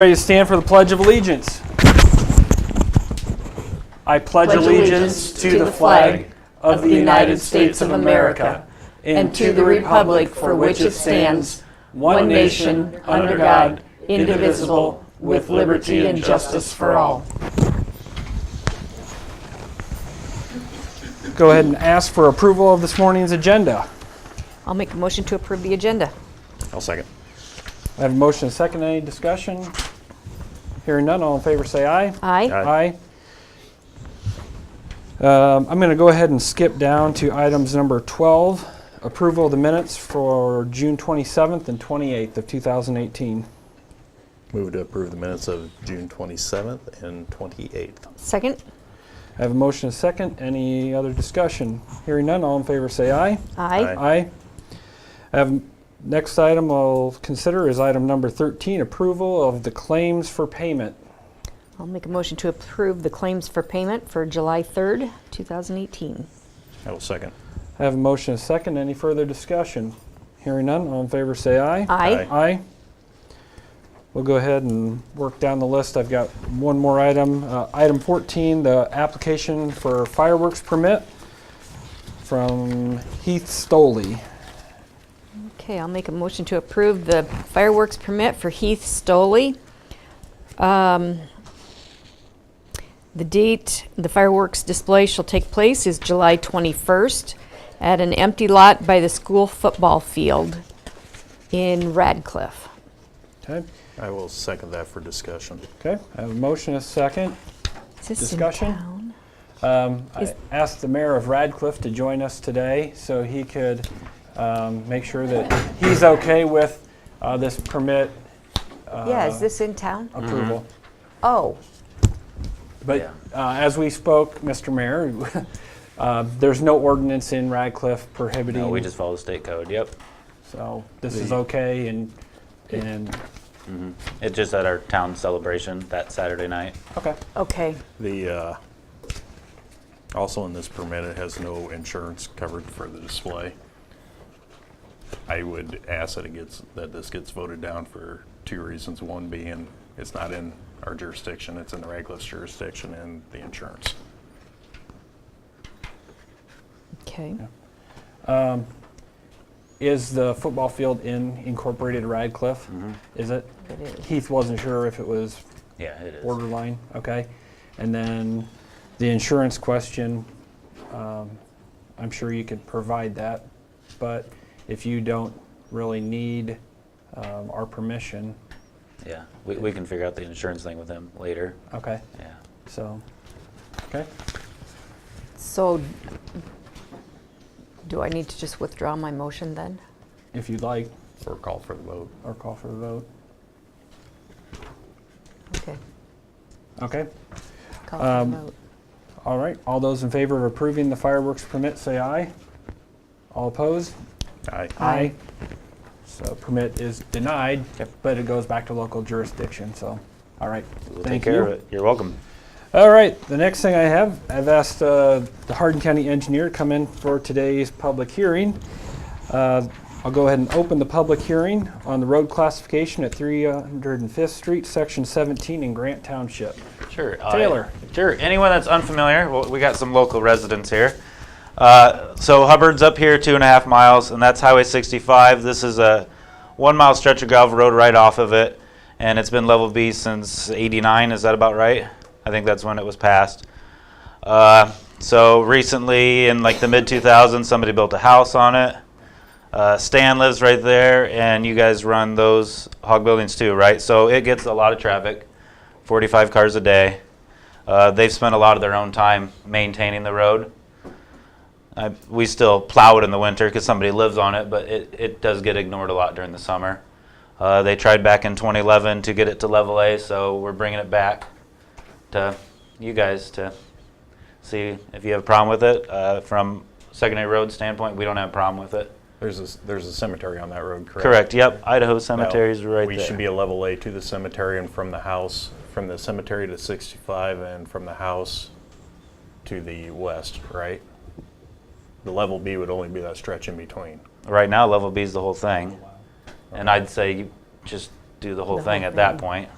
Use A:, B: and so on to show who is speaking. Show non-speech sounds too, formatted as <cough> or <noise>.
A: Ready to stand for the Pledge of Allegiance. I pledge allegiance to the flag of the United States of America and to the republic for which it stands, one nation, under God, indivisible, with liberty and justice for all. Go ahead and ask for approval of this morning's agenda.
B: I'll make a motion to approve the agenda.
C: I'll second.
A: I have a motion and a second. Any discussion? Hearing none, all in favor say aye.
B: Aye.
A: Aye. Um, I'm going to go ahead and skip down to items number 12, approval of the minutes for June 27th and 28th of 2018.
C: Move to approve the minutes of June 27th and 28th.
B: Second?
A: I have a motion and a second. Any other discussion? Hearing none, all in favor say aye.
B: Aye.
C: Aye.
A: Aye. I have, next item I'll consider is item number 13, approval of the claims for payment.
B: I'll make a motion to approve the claims for payment for July 3rd, 2018.
C: I will second.
A: I have a motion and a second. Any further discussion? Hearing none, all in favor say aye.
B: Aye.
A: Aye. We'll go ahead and work down the list. I've got one more item. Uh, Item 14, the application for fireworks permit from Heath Stoley.
B: Okay, I'll make a motion to approve the fireworks permit for Heath Stoley. Um, The date the fireworks display shall take place is July 21st at an empty lot by the school football field in Radcliffe.
A: Okay,
C: I will second that for discussion.
A: okay. I have a motion, and a second.
B: Is this in
A: Discussion?
B: town?
A: Um, I
B: Is-
A: asked the mayor of Radcliffe to join us today so he could um, make sure that he's okay with uh, this permit Uh,
B: Yeah, is this in town?
D: Mm-hmm.
A: approval.
B: Oh,
A: But
C: Yeah.
A: uh, as we spoke, Mr. Mayor, <laughs> uh, there's no ordinance in Radcliffe prohibiting.
D: No, Uh, we just follow the state code, yep.
A: So this is okay and, and,
D: It's just at our town celebration that Saturday night.
A: okay,
B: okay.
C: The, uh, also in this permit, it has no insurance covered for the display. I would ask that it gets, that this gets voted down for two reasons. One being, it's not in our jurisdiction, it's in the Radcliffe's jurisdiction and the insurance.
B: Okay.
A: is the football field in incorporated Radcliffe? Is it?
B: It is.
A: Heath wasn't sure if it was
D: Yeah, it is.
A: borderline, okay? And then the insurance question, um, I'm sure you could provide that, but if you don't really need um, our permission,
D: Yeah, we, we can figure out the insurance thing with him later,
A: okay,
D: yeah.
A: so, okay?
B: So do I need to just withdraw my motion then?
A: if you'd like,
C: Or call for the vote.
A: or call for the vote.
B: Okay.
A: Okay,
B: Call for
A: Um,
B: the vote.
A: all right. All those in favor of approving the fireworks permit, say aye. All opposed?
C: Aye.
B: Aye.
A: So permit is denied, but it goes back to local jurisdiction, so, all right.
D: We'll take
A: Thank
D: care of
A: you.
D: it. You're welcome.
A: All right, the next thing I have, I've asked uh, the Hardin County Engineer to come in for today's public hearing. Uh, I'll go ahead and open the public hearing on the road classification at 305th Street, Section 17 in Grant Township.
D: Sure. uh,
A: Taylor.
D: Sure. Anyone that's unfamiliar, well, we got some local residents here. Uh, so Hubbard's up here two and a half miles, and that's Highway 65. This is a one mile stretch of gravel road right off of it, and it's been level B since 89. Is that about right? I think that's when it was passed. Uh, so recently, in like the mid 2000s, somebody built a house on it. Uh, Stan lives right there, and you guys run those hog buildings too, right? So it gets a lot of traffic, 45 cars a day. Uh, they've spent a lot of their own time maintaining the road. I, we still plow it in the winter because somebody lives on it, but it, it does get ignored a lot during the summer. Uh, they tried back in 2011 to get it to level A, so we're bringing it back to you guys to see if you have a problem with it. Uh, from secondary road standpoint, we don't have a problem with it.
C: There's a, s- there's a cemetery on that road, correct?
D: Correct. Yep. Idaho
C: No,
D: cemeteries right
C: we
D: there.
C: should be a level A to the cemetery and from the house, from the cemetery to 65 and from the house to the west, right? The level B would only be that stretch in between.
D: right now. Level B is the whole thing, and I'd say you just do the whole
B: The
D: thing
B: whole
D: at that
B: thing.
D: point.